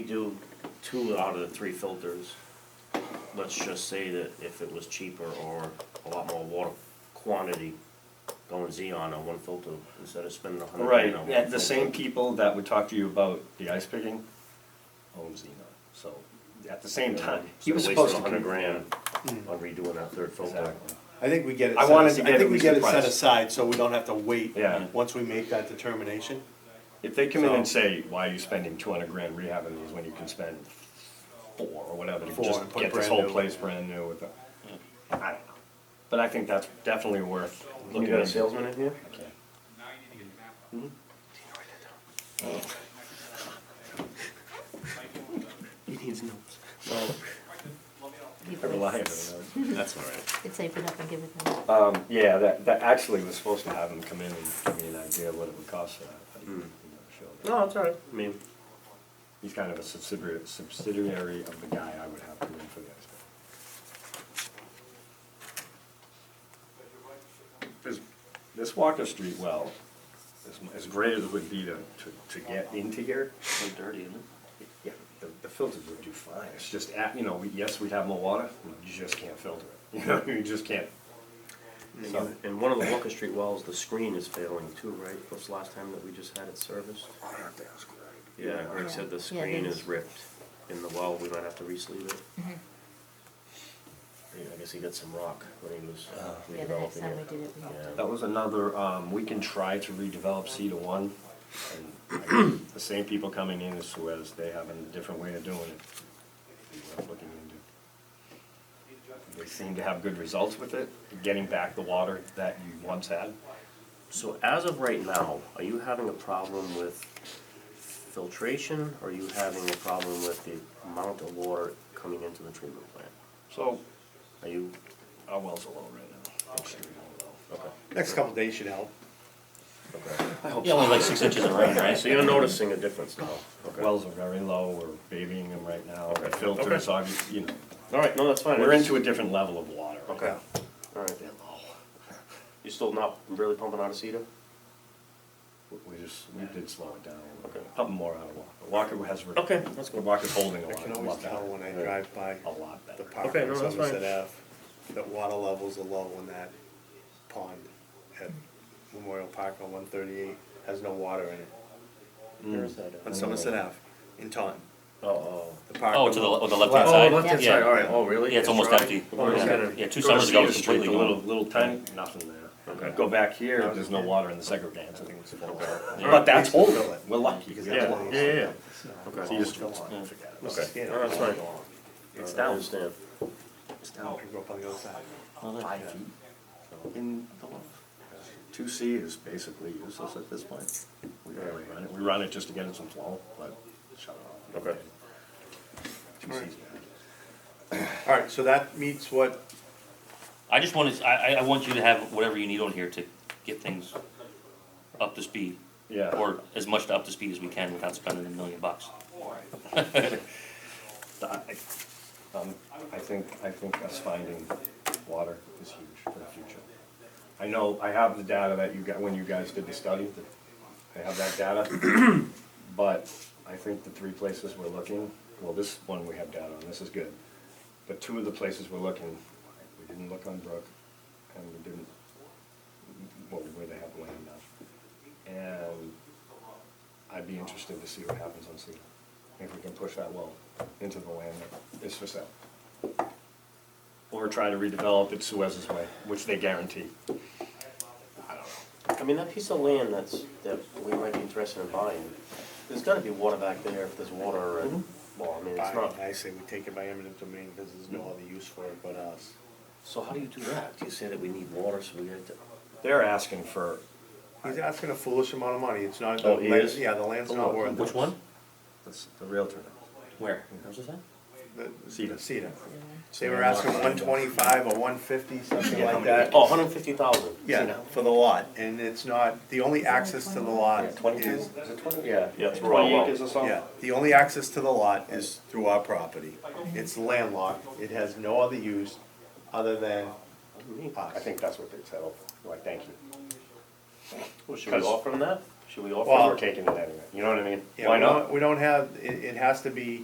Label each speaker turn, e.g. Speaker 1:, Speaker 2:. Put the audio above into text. Speaker 1: We do two out of the three filters. Let's just say that if it was cheaper or a lot more water quantity, going Xeon on one filter instead of spending a hundred
Speaker 2: Right,
Speaker 1: grand on one
Speaker 2: and the
Speaker 1: filter.
Speaker 2: same people that would talk to you about the ice picking own Xenon, so at the same time, he
Speaker 1: Instead
Speaker 2: was
Speaker 1: of
Speaker 2: supposed to.
Speaker 1: wasting a hundred
Speaker 2: con-
Speaker 1: grand on redoing that third filter.
Speaker 2: Exactly.
Speaker 3: I think we get it.
Speaker 2: I
Speaker 3: set
Speaker 2: wanted
Speaker 3: as-
Speaker 2: to
Speaker 3: I
Speaker 2: get
Speaker 3: think
Speaker 2: at
Speaker 3: we
Speaker 2: least
Speaker 3: get
Speaker 2: the
Speaker 3: it set
Speaker 2: price.
Speaker 3: aside, so we don't have to wait.
Speaker 2: Yeah.
Speaker 3: Once we make that determination.
Speaker 2: If they come in and say, why are you spending two hundred grand rehabbing these when you can spend four or whatever, to
Speaker 3: Four
Speaker 2: just
Speaker 3: and put
Speaker 2: get this
Speaker 3: brand
Speaker 2: whole
Speaker 3: new.
Speaker 2: place brand new with a, I don't know. But I think that's definitely worth
Speaker 1: Look,
Speaker 2: looking
Speaker 1: you got a
Speaker 2: at.
Speaker 1: salesman in here? He needs notes.
Speaker 2: I rely on it.
Speaker 3: That's all right.
Speaker 4: It's safe it up and give it them.
Speaker 2: Um, yeah, that, that actually was supposed to have them come in and give me an idea of what it would cost for that. but he never showed up.
Speaker 1: No, it's all right. I mean,
Speaker 2: He's kind of a subsidiary, subsidiary of the guy I would have come in for the ice cream. This, this Walker Street well, as, as great as it would be to, to, to get into here,
Speaker 1: so dirty, isn't it?
Speaker 2: yeah, the, the filters would do fine. It's just, at- you know, we- yes, we'd have more water, we just can't filter it. You know, you just can't. So-
Speaker 1: And- And one of the Walker Street wells, the screen is failing too, right? What's the last time that we just had it serviced?
Speaker 2: I have to ask Greg.
Speaker 1: Yeah, Greg said the
Speaker 4: Yeah,
Speaker 1: screen
Speaker 4: there's-
Speaker 1: is ripped in the well, we might have to re-sleeve it.
Speaker 4: Mm-hmm.
Speaker 1: Yeah, I guess he got some rock when he was
Speaker 5: Uh-huh.
Speaker 1: uh,
Speaker 4: Yeah, the next time we
Speaker 1: redeveloping
Speaker 4: did
Speaker 1: it.
Speaker 4: it, we had
Speaker 1: Yeah.
Speaker 4: to.
Speaker 2: That was another, um, we can try to redevelop C to one. and The same people coming in as Suez, they have a different way of doing it. It's worth looking into. They seem to have good results with it, getting back the water that you once had.
Speaker 1: So as of right now, are you having a problem with filtration? Or are you having a problem with the amount of water coming into the treatment plant?
Speaker 2: So
Speaker 1: Are you,
Speaker 2: our wells are low right now. Extremely low.
Speaker 1: okay,
Speaker 3: Next couple days should help.
Speaker 1: okay.
Speaker 2: I hope
Speaker 5: Yeah,
Speaker 2: so.
Speaker 5: only like six inches of rain, right?
Speaker 1: So you're noticing a difference now? Okay.
Speaker 2: Wells are very low, we're babying them right now,
Speaker 1: Okay.
Speaker 2: filters, obviously, you know,
Speaker 1: All right, no, that's fine.
Speaker 2: we're into a different level of water. right
Speaker 1: Okay,
Speaker 2: now.
Speaker 1: all right.
Speaker 2: They're low.
Speaker 1: You still not really pumping out of cedar?
Speaker 2: We just, we did slow it down a
Speaker 1: Okay.
Speaker 2: little bit. Pumping more out of Walker. Walker has.
Speaker 1: Okay, that's
Speaker 2: good. Walker's holding a
Speaker 3: I
Speaker 2: lot,
Speaker 3: can
Speaker 2: a
Speaker 3: always
Speaker 2: lot
Speaker 3: tell when
Speaker 2: better.
Speaker 3: I drive by
Speaker 2: A lot better.
Speaker 3: the park
Speaker 1: Okay,
Speaker 3: on
Speaker 1: no, that's fine.
Speaker 3: Somerset Ave, that water levels are low in that pond at Memorial Park on one thirty-eight, has no water in it,
Speaker 1: Where is that at?
Speaker 3: on Somerset Ave, in Taunton.
Speaker 1: Oh, oh.
Speaker 3: The park.
Speaker 5: Oh,
Speaker 3: on
Speaker 5: to the,
Speaker 3: the-
Speaker 5: le- oh, the
Speaker 1: Oh,
Speaker 5: left-hand side?
Speaker 1: left-hand
Speaker 5: Yeah.
Speaker 1: side, all right, oh, really?
Speaker 5: Yeah, it's almost
Speaker 1: dry?
Speaker 5: empty.
Speaker 1: Oh, it's
Speaker 3: Yeah.
Speaker 1: kinda-
Speaker 5: Yeah,
Speaker 2: Go to
Speaker 5: two summers ago, it
Speaker 2: Cedar
Speaker 5: was
Speaker 2: Street,
Speaker 5: completely
Speaker 2: The little,
Speaker 5: gone.
Speaker 2: little tiny, nothing there.
Speaker 1: Okay.
Speaker 2: Go back here, there's no water in the second dance, I think it's full.
Speaker 5: Yeah.
Speaker 2: But that's holding it, we're lucky.
Speaker 3: Because
Speaker 1: Yeah,
Speaker 3: that's-
Speaker 1: yeah, yeah,
Speaker 2: So
Speaker 1: okay,
Speaker 2: you just-
Speaker 3: Yeah.
Speaker 2: forget it.
Speaker 1: okay,
Speaker 3: Yeah.
Speaker 1: no, Oh, that's fine.
Speaker 2: It's
Speaker 1: I
Speaker 2: down.
Speaker 1: understand.
Speaker 2: It's
Speaker 3: I
Speaker 2: down
Speaker 3: grew up on the other side.
Speaker 2: five feet. In the low. Two C is basically useless at this point. We barely run it, we run it just to get it some flow, but shut it off.
Speaker 1: Okay.
Speaker 2: Two C's bad.
Speaker 3: All right, so that meets what,
Speaker 5: I just wanted, I, I, I want you to have whatever you need on here to get things up to speed.
Speaker 2: Yeah.
Speaker 5: Or as much up to speed as we can without spending a million bucks.
Speaker 2: I um, I think, I think us finding water is huge for the future. I know, I have the data that you got, when you guys did the study, that- I have that data. But I think the three places we're looking, well, this one we have data on, this is good. But two of the places we're looking, we didn't look on Brook, and we didn't, well, where they have land now. And I'd be interested to see what happens on Cedar, if we can push that well into the land that is for sale. Or try to redevelop it Suez's way, which they guarantee.
Speaker 1: I mean, that piece of land that's, that we might be interested in buying, there's gotta be water back there if there's water and, well, I mean, it's not,
Speaker 3: I say we take it by eminent domain because there's no other use for it but us.
Speaker 1: so how do you do that? Do you say that we need water, so we get to?
Speaker 2: They're asking for,
Speaker 3: He's asking a foolish amount of money, it's not,
Speaker 1: Oh, he
Speaker 3: land-
Speaker 1: is?
Speaker 3: yeah, the land's not worth it.
Speaker 5: Which one?
Speaker 2: that's the realtor,
Speaker 5: Where? Where's this at?
Speaker 3: The-
Speaker 2: Cedar.
Speaker 3: Cedar. They were asking one twenty-five or one fifty, something like that.
Speaker 1: Oh, hundred and fifty thousand?
Speaker 3: Yeah, for the lot, and it's not, the only access to the lot
Speaker 2: twenty-two,
Speaker 3: is,
Speaker 2: is it twenty?
Speaker 1: Yeah, yeah, through our
Speaker 2: Twenty
Speaker 1: well.
Speaker 2: acres or something?
Speaker 3: yeah, the only access to the lot is through our property. It's landlocked, it has no other use other than us.
Speaker 2: I think that's what they settled, like, thank you.
Speaker 1: Well, should we offer them that?
Speaker 6: Should we offer?
Speaker 1: Well, we're taking it anyway, you know what I mean?
Speaker 3: Yeah,
Speaker 1: Why
Speaker 3: we
Speaker 1: not?
Speaker 3: don't- We don't have, it, it has to be